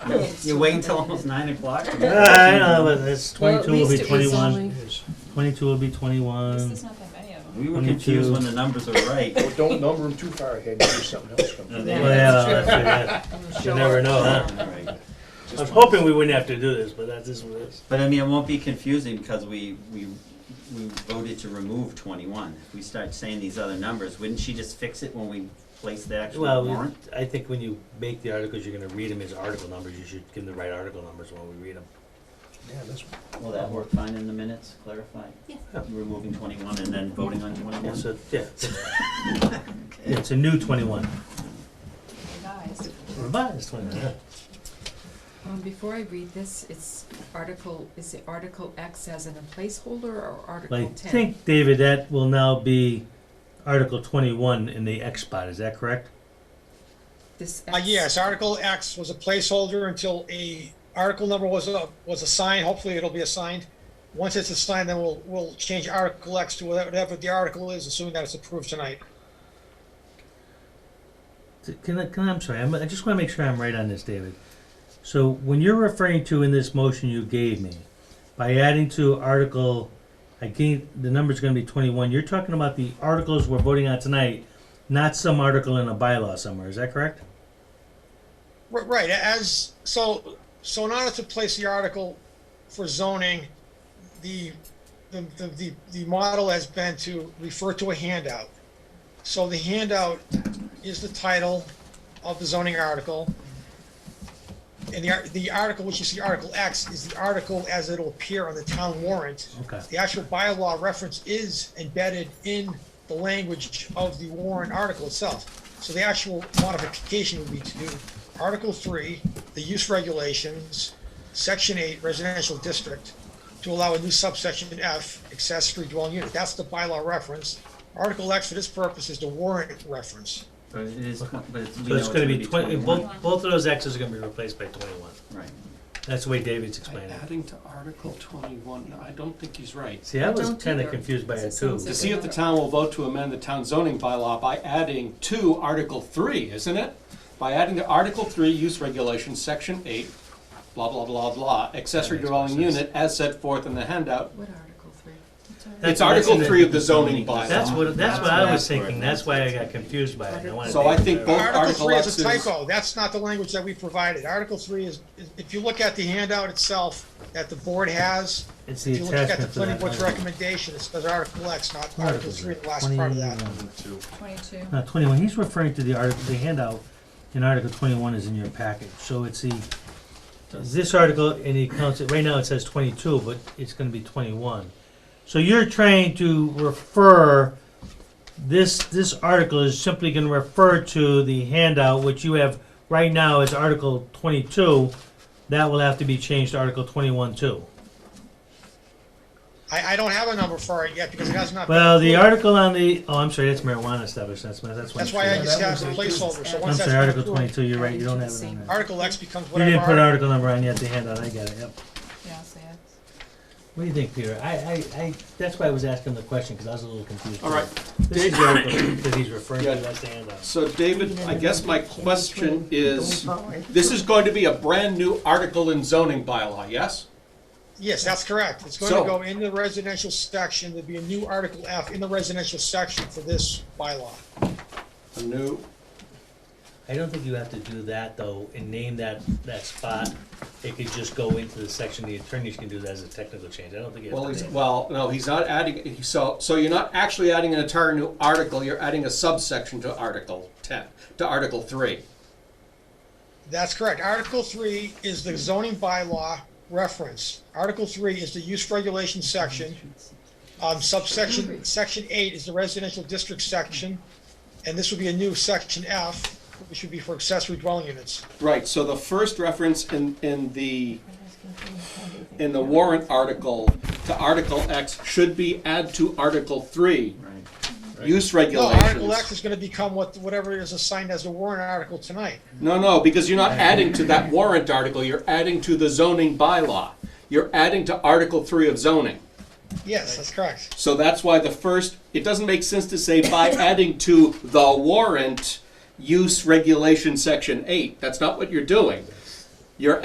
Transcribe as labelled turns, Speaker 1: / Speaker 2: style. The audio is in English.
Speaker 1: You wait until almost nine o'clock?
Speaker 2: I know, but it's
Speaker 3: Well, at
Speaker 2: 22 will be
Speaker 3: least it was
Speaker 2: 21.
Speaker 3: only-
Speaker 4: Yes.
Speaker 2: 22 will be
Speaker 3: Because
Speaker 2: 21.
Speaker 3: there's not that many of them.
Speaker 1: We were
Speaker 2: Me
Speaker 1: confused
Speaker 2: too.
Speaker 1: when the numbers were right.
Speaker 4: Well, don't number them too far ahead, maybe something else comes
Speaker 1: No,
Speaker 4: up.
Speaker 1: they-
Speaker 2: Well, yeah, that's it,
Speaker 3: I'm
Speaker 2: yeah.
Speaker 3: sure.
Speaker 2: You never know, huh?
Speaker 1: All right.
Speaker 4: Just
Speaker 2: I was
Speaker 4: one.
Speaker 2: hoping we wouldn't have to do this, but that is what it is.
Speaker 1: But I mean, it won't be confusing because we, we, we voted to remove twenty-one. If we start saying these other numbers, wouldn't she just fix it when we place the actual
Speaker 2: Well,
Speaker 1: warrant?
Speaker 2: we- I think when you make the articles, you're gonna read them as article numbers, you should give them the right article numbers when we read them.
Speaker 4: Yeah, that's,
Speaker 1: Will that work fine in the minutes, clarify?
Speaker 3: Yeah.
Speaker 1: Removing twenty-one and then voting on twenty-one?
Speaker 2: It's a, yeah, it's a new twenty-one,
Speaker 3: Revised.
Speaker 2: revised twenty-one, yeah.
Speaker 3: Um, before I read this, it's article, is it Article X as in a placeholder or
Speaker 2: But I
Speaker 3: Article ten?
Speaker 2: think, David, that will now be Article twenty-one in the X spot, is that correct?
Speaker 3: This
Speaker 5: Uh,
Speaker 3: X.
Speaker 5: yes, Article X was a placeholder until a article number was, uh, was assigned, hopefully it'll be assigned. Once it's assigned, then we'll, we'll change Article X to whatever the article is, assuming that it's approved tonight.
Speaker 2: T- Can I, can I, I'm sorry, I'm, I just wanna make sure I'm right on this, David. So when you're referring to in this motion you gave me, by adding to Article, I gave, the number's gonna be twenty-one, you're talking about the articles we're voting on tonight, not some article in a bylaw somewhere, is that correct?
Speaker 5: R- Right, as, so, so in order to place the article for zoning, the, the, the- the, the model has been to refer to a handout. So the handout is the title of the zoning article. And the, ar- the article, which you see Article X, is the article as it'll appear on the town warrant.
Speaker 2: Okay.
Speaker 5: The actual bylaw reference is embedded in the language of the warrant article itself. So the actual modification would be to do Article three, the use regulations, Section eight residential district, to allow a new subsection F, accessory dwelling unit. That's the bylaw reference. Article X for this purpose is the warrant reference.
Speaker 1: But it is, twen- but it's, we
Speaker 2: So
Speaker 1: know
Speaker 2: it's gonna be twenty,
Speaker 1: twenty-one,
Speaker 2: both, both of those X's are gonna be replaced by twenty-one.
Speaker 1: right?
Speaker 2: That's the way David's
Speaker 6: By
Speaker 2: explaining it.
Speaker 6: adding to Article twenty-one, I don't think he's right.
Speaker 2: See, I was
Speaker 3: don't
Speaker 2: kinda
Speaker 3: either,
Speaker 2: confused by
Speaker 3: because
Speaker 2: it
Speaker 3: it
Speaker 2: too.
Speaker 3: sounds
Speaker 6: To
Speaker 3: like-
Speaker 6: see if the town will vote to amend the town zoning bylaw by adding to Article three, isn't it? By adding to Article three, use regulation, section eight, blah, blah, blah, blah, accessory
Speaker 2: That makes more
Speaker 6: dwelling
Speaker 2: sense.
Speaker 6: unit as set forth in the handout.
Speaker 3: What Article three? What's Article-
Speaker 2: That's-
Speaker 6: It's Article
Speaker 2: that's in
Speaker 6: three
Speaker 2: the-
Speaker 6: of the zoning
Speaker 2: That's
Speaker 6: bylaw.
Speaker 2: what, that's what
Speaker 1: That's
Speaker 2: I was
Speaker 1: what I-
Speaker 2: thinking, that's why I got confused by it. I wanted
Speaker 6: So I
Speaker 2: David
Speaker 6: think
Speaker 2: to-
Speaker 6: both
Speaker 5: Article
Speaker 6: Article
Speaker 5: three is a
Speaker 6: X's.
Speaker 5: typo. That's not the language that we provided. Article three is, is- if you look at the handout itself that the board has,
Speaker 2: It's the
Speaker 5: if you look at the
Speaker 2: attachment to
Speaker 5: planning
Speaker 2: that.
Speaker 5: board's
Speaker 2: article.
Speaker 5: recommendation, it says Article X, not Article
Speaker 2: Articles,
Speaker 5: three, the last part of that.
Speaker 2: 21.
Speaker 3: Twenty-two.
Speaker 2: No, twenty-one, he's referring to the article, the handout in Article twenty-one is in your package, so it's the, this article, and he counts it, right now it says twenty-two, but it's gonna be twenty-one. So you're trying to refer, this, this article is simply gonna refer to the handout, which you have right now is Article twenty-two, that will have to be changed to Article twenty-one too.
Speaker 5: I, I don't have a number for it yet because it has not. been
Speaker 2: Well, the
Speaker 5: approved.
Speaker 2: article on the, oh, I'm sorry, that's marijuana establishment, that's, that's
Speaker 5: That's
Speaker 2: why.
Speaker 5: why I
Speaker 6: Yeah,
Speaker 5: just
Speaker 6: that
Speaker 5: have the
Speaker 6: was a-
Speaker 5: placeholder, so
Speaker 2: I'm
Speaker 5: once that's.
Speaker 2: sorry, Article
Speaker 5: approved,
Speaker 2: twenty-two, you're right, you
Speaker 3: Adding
Speaker 2: don't have
Speaker 3: to
Speaker 2: it
Speaker 3: the
Speaker 2: on
Speaker 3: same
Speaker 2: there.
Speaker 5: Article X becomes
Speaker 2: You didn't
Speaker 5: whatever.
Speaker 2: put article
Speaker 5: article-
Speaker 2: number on yet, the handout, I got it, yep.
Speaker 3: Yeah, I'll say it.
Speaker 2: What do you think, Peter? I, I, I, that's why I was asking the question, because I was a little confused.
Speaker 6: All right.
Speaker 2: This is the article that he's referring to,
Speaker 6: Yeah.
Speaker 2: that's the handout.
Speaker 6: So David, I guess my question is, this is going to be a brand-new article in zoning bylaw, yes?
Speaker 5: Yes, that's correct. It's going
Speaker 6: So-
Speaker 5: to go in the residential section. There'll be a new Article F in the residential section for this bylaw.
Speaker 6: A new
Speaker 2: I don't think you have to do that, though, and name that, that spot. It could just go into the section, the attorneys can do that as a technical change. I don't think you
Speaker 6: Well,
Speaker 2: have
Speaker 6: he's,
Speaker 2: to name it.
Speaker 6: well, no, he's not adding, he- so, so you're not actually adding an entire new article, you're adding a subsection to Article ten, to Article three.
Speaker 5: That's correct. Article three is the zoning bylaw reference. Article three is the use regulation section. Um, subsection, section eight is the residential district section. And this would be a new section F, which would be for accessory dwelling units.
Speaker 6: Right, so the first reference in, in the, in the warrant article to Article X should be add to Article three,
Speaker 1: Right.
Speaker 6: use
Speaker 5: No, Article X
Speaker 6: regulations.
Speaker 5: is gonna become what, whatever is assigned as the warrant article tonight.
Speaker 6: No, no, because you're not adding to that warrant article, you're adding to the zoning bylaw. You're adding to Article three of zoning.
Speaker 5: Yes, that's correct.
Speaker 6: So that's why the first, it doesn't make sense to say by adding to the warrant use regulation section eight. That's not what you're doing.